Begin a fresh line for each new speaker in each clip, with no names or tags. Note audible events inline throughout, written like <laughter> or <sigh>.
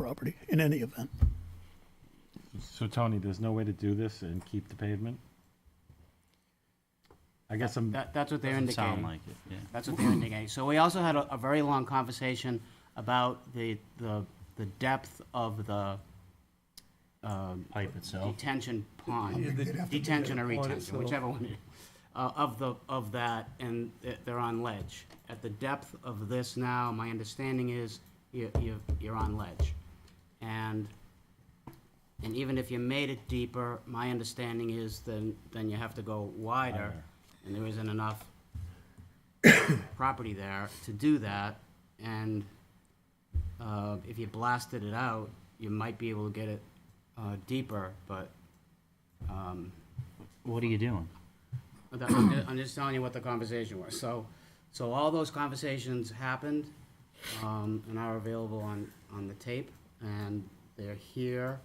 property in any event.
So Tony, there's no way to do this and keep the pavement? I guess I'm,
That, that's what they're
Doesn't sound
indicating.
like it, yeah.
That's what they're indicating. So we also had a, a very long conversation about the, the, the depth of the, um,
Pipe itself.
detention
Yeah,
pond,
they'd have to
detention or
do that.
retention, whichever one it is, uh, of the, of that, and th- they're on ledge. At the depth of this now, my understanding is you, you, you're on ledge. And, and even if you made it deeper, my understanding is then, then you have to go wider, and there isn't enough property there to do that, and, uh, if you blasted it out, you might be able to get it, uh, deeper, but, um,
What are you doing?
that- I'm <clears throat> ju- I'm just telling you what the conversation was, so, so all those conversations happened, um, and are available on, on the tape, and they're here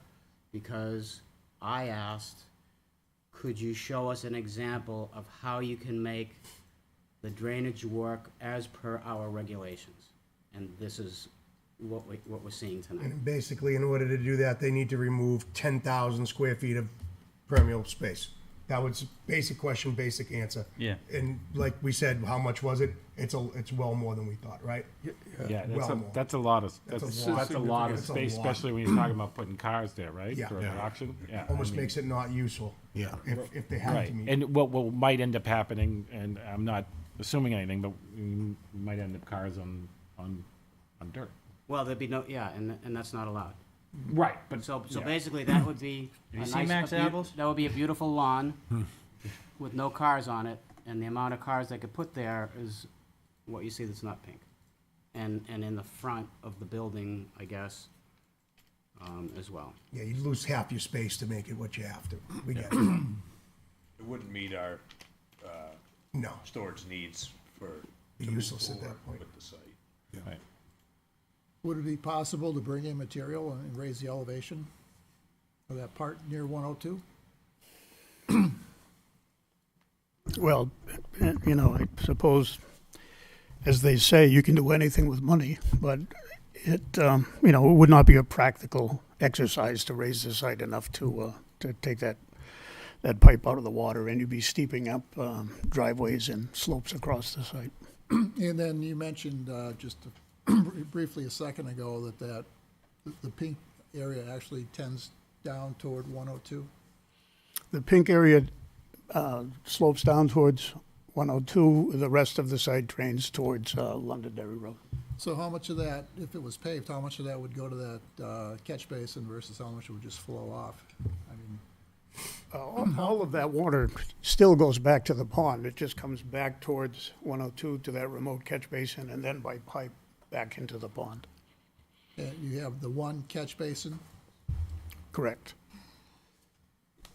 because I asked, could you show us an example of how you can make the drainage work as per our regulations? And this is what we, what we're seeing tonight.
And basically, in order to do that, they need to remove ten thousand square feet of permeable space. That was basic question, basic answer.
Yeah.
And like we said, how much was it? It's a, it's well more than we thought, right?
yeah, that's
Well
a,
more.
that's a lot of,
That's a
that's,
lot.
that's a lot of
That's a
space,
lot.
especially when you're talking about putting cars there, right?
Yeah.
For an auction, yeah. I
Almost
mean-
makes it not useful.
Yeah.
If, if they have
Right,
to meet.
and what, what might end up happening, and I'm not assuming anything, but you might end up cars on, on, on dirt.
Well, there'd be no, yeah, and, and that's not allowed.
Right, but.
So, so
yeah.
basically, that would be.
<clears throat> Have you
a
seen
nice- a
Max
beau-
Apples? Hmm.
That would be a beautiful
<laughs>
lawn with no cars on it, and the amount of cars they could put there is what you see that's not pink. And, and in the front of the building, I guess, um, as well.
Yeah, you'd lose half your space to make it what you have to. We get it.
It wouldn't meet our uh,
No,
storage needs for.
Be
to move
useless at that point.
forward With the site.
Right.
Would it be possible to bring in material and raise the elevation of that part near 102?
Well, eh, you know, I suppose, as they say, you can do anything with money, but it, um, you know, it would not be a practical exercise to raise the site enough to, uh, to take that, that pipe out of the water, and you'd be steeping up um, driveways and slopes across the site.
And then you mentioned uh, just briefly a second ago that that, the pink area actually tends down toward 102.
The pink area uh, slopes down towards 102, the rest of the site drains towards uh, Londonderry Road.
So how much of that, if it was paved, how much of that would go to that uh, catch basin versus how much would just flow off? I mean,
All of that water still goes back to the pond. It just comes back towards 102 to that remote catch basin and then by pipe back into the pond.
uh, you have the one catch basin,
Correct.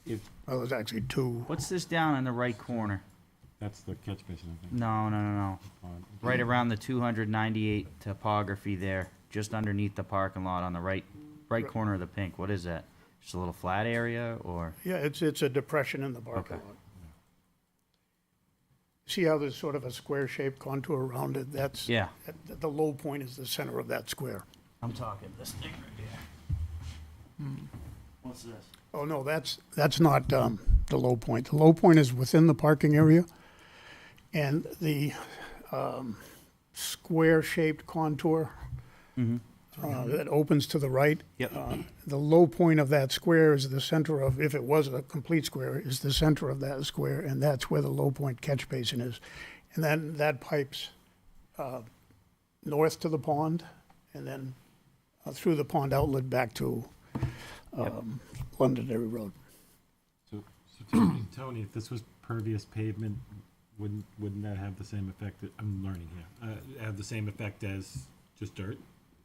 If,
Well, there's actually two.
What's this down in the right corner?
that's the catch basin, I think.
No, no, no, no.
on-
Right around the 298 topography there, just underneath the parking lot on the right, right corner of the pink. What is that? Just a little flat area or?
Yeah, it's, it's a depression in the parking
Okay.
lot. See how there's sort of a square-shaped contour around it? That's.
Yeah.
that- The low point is the center of that square.
I'm talking this thing right here. Hmm. What's this?
Oh, no, that's, that's not um, the low point. The low point is within the parking area, and the um, square-shaped contour uh, that opens to the right.
Yep.
uh, The low point of that square is the center of, if it was a complete square, is the center of that square, and that's where the low point catch basin is. And then that pipes uh, north to the pond, and then uh, through the pond outlet back to um, Londonderry Road.
So, so Tony, Tony, if this was pervious pavement, wouldn't, wouldn't that have the same effect, that- I'm learning here, uh, have the same effect as just dirt?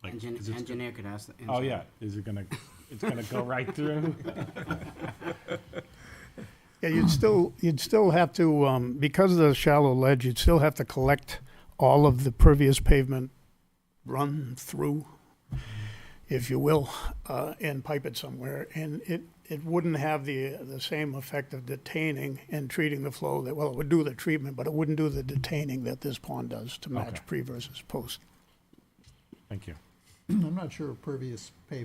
Like,
Engin-
'cause it's-
Engineer could ask. the
Oh,
engineer.
yeah, is it gonna, it's gonna go right through? <laughs>
Yeah, you'd still, you'd still have to, um, because of the shallow ledge, you'd still have to collect all of the pervious pavement run through, if you will, uh, and pipe it somewhere. And it, it wouldn't have the, the same effect of detaining and treating the flow that, well, it would do the treatment, but it wouldn't do the detaining that this pond does to
Okay.
match pre versus post.
Thank you.
I'm not sure if pervious pavement